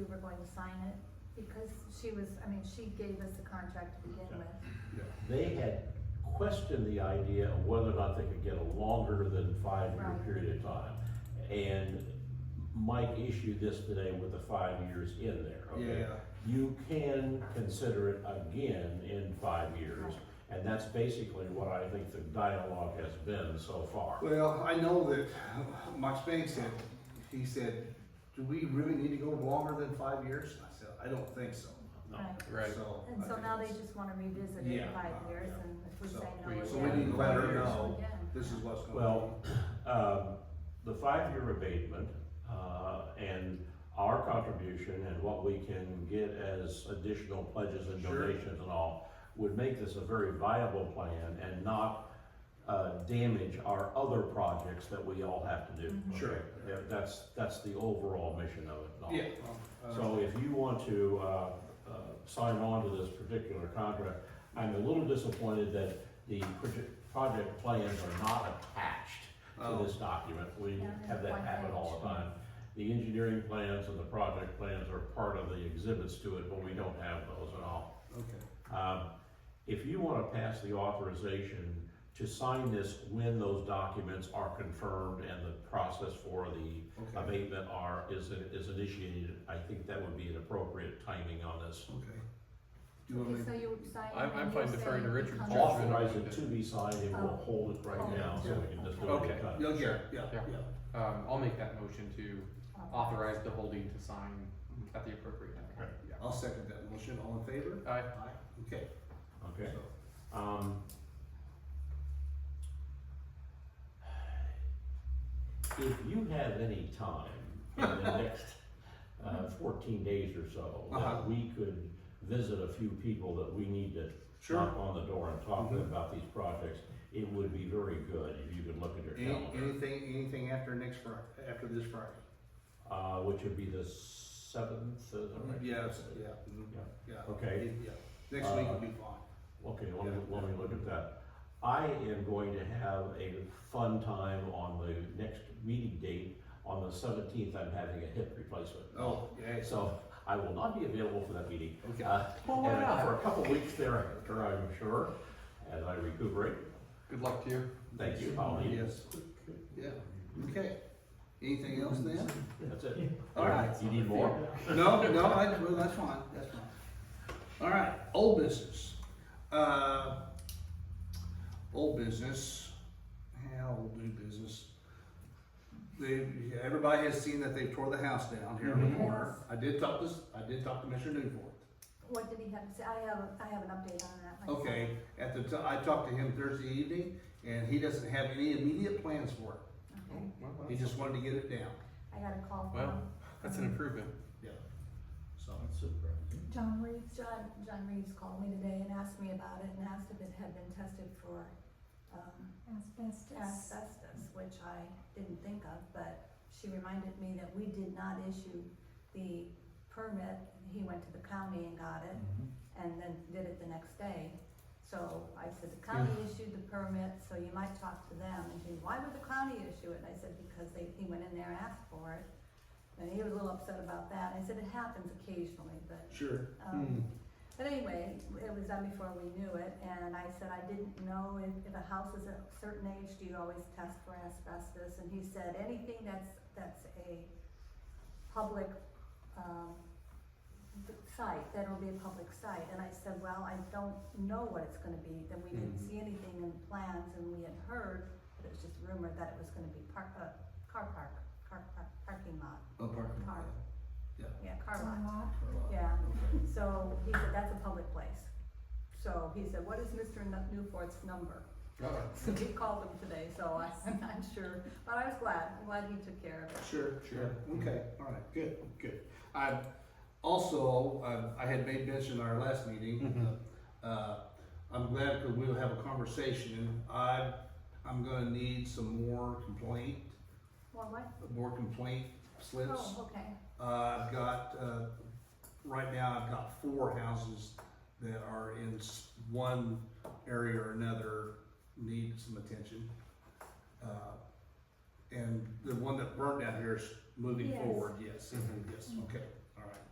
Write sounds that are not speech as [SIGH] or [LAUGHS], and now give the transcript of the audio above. were going to sign it, because she was, I mean, she gave us the contract to begin with. They had questioned the idea of whether or not they could get a longer than five-year Right. period of time. And Mike issued this today with the five years in there, okay? Yeah. You can consider it again in five years, and that's basically what I think the dialogue has been so far. Well, I know that Mike Spade said, he said, do we really need to go longer than five years? I said, I don't think so. No. Right. Right. So. And I so think now they it's- just wanna revisit it in Yeah, five uh, years, yeah. and if we So- say no we- again. So we need to let her Yeah. know, Again. this is what's going on. Well, [CLEARS THROAT] um, the five-year abatement, uh, and our contribution and what we can get as additional pledges and Sure. donations and all would make this a very viable plan and not, uh, damage our other projects that we all have to do. Mm-hmm. Sure. Okay? Yeah, That's, that's the overall mission of it. and all. Yeah. uh, So if you want to, uh, uh, sign on to this particular contract, I'm a little disappointed that the proje- project plans are not attached to Oh. this document. We Yeah, there's have that one happen all the page. time. The engineering plans and the project plans are part of the exhibits to it, but we don't have those at all. Okay. Um, if you wanna pass the authorization to sign this when those documents are confirmed and the process for the Okay. abatement are, is, is initiated, I think that would be an appropriate timing on this. Okay. Do you want Okay, me, so you sign it. I'm- and I'm you'll fine say deferring to the Richard's contract. judgment. Authorize it to be signed and we'll hold it right now so we can just do it. Okay. anytime. no, yeah, yeah, Yeah. yeah. Um, I'll make that motion to authorize the holding to sign at the appropriate time. I'll second that motion. All in favor? Aye. Aye. Okay. Okay. So, Um. If you have any time in the [LAUGHS] next, uh, fourteen days or so, Uh-huh. that we could visit a few people that we need to Sure. knock on the door and talk to Mhm. them about these projects, it would be very good if you could look at your Any, calendar. anything, anything after next Fri- after this Friday? Uh, which would be the seventh, uh, is that right? Yes, yeah, mhm, Yeah. yeah. Okay. Yeah. Next week Uh, will be fine. Okay, let me, Yeah. let me look at that. I am going to have a fun time on the next meeting date. On the seventeenth, I'm having a hip replacement. Oh, yeah, so, So I will not be available for that meeting. okay. Uh, Well, why and not? For a couple weeks thereafter, I'm sure, as I recuperate. Good luck to you. Thank you, Pauline. Yes. Yeah, okay. Anything else then? That's it. All right. You need more? No, no, I, well, that's fine, that's fine. All right, old business. Uh, old business, how old new business? They, everybody has seen that they tore the house down here in the corner. I did talk to, I did talk to Mr. Newport. What did he have to say? I have, I have an update on that. myself. Okay, at the, t- I talked to him Thursday evening, and he doesn't have any immediate plans for it. Okay. He just wanted to get it down, I got a call Well. from That's an improvement. yeah, so. John Reeves. John, John Reeves called me today and asked me about it and asked if it had been tested for, um, Asbestos. asbestos, which I didn't think of, but she reminded me that we did not issue the permit. He went to the county and got it, Mm-hmm. and then did it the next day. So I said, the county issued the permit, so you might talk to them. And he, why would the county issue it? And I said, because they, he went in there and asked for it. And he was a little upset about that. And I said, it happens occasionally, but, Sure. um, but anyway, it was done before we knew it, and I said, I didn't know if, if a house is a certain age, do you always test for asbestos? And he said, anything that's, that's a public, um, th- site, that'll be a public site. And I said, well, I don't know what it's gonna be, then we didn't see anything in plans, and we had heard, but it was just rumored that it was gonna be park, uh, car park, car, park, parking lot, A parking car, lot. Yeah. yeah, car It's a lot. lot. Yeah, so he said, that's a public place. So he said, what is Mr. Nu- Newport's number? [LAUGHS] So he called him today, so I, [LAUGHS] I'm not sure, but I was glad, I'm glad he took care of it. Sure, sure. Okay, all right, good, good. I, also, um, I had made mention in our last meeting, uh, I'm glad that we'll have a conversation. I, I'm gonna need some more complaint, Well, what? more complaint slips. Oh, okay, Uh, I've got, uh, right now I've got four houses that are in s- one area or another need some attention. Uh, And the one that burned down here is moving Yes. forward, yes, Mhm. yes, okay, all right.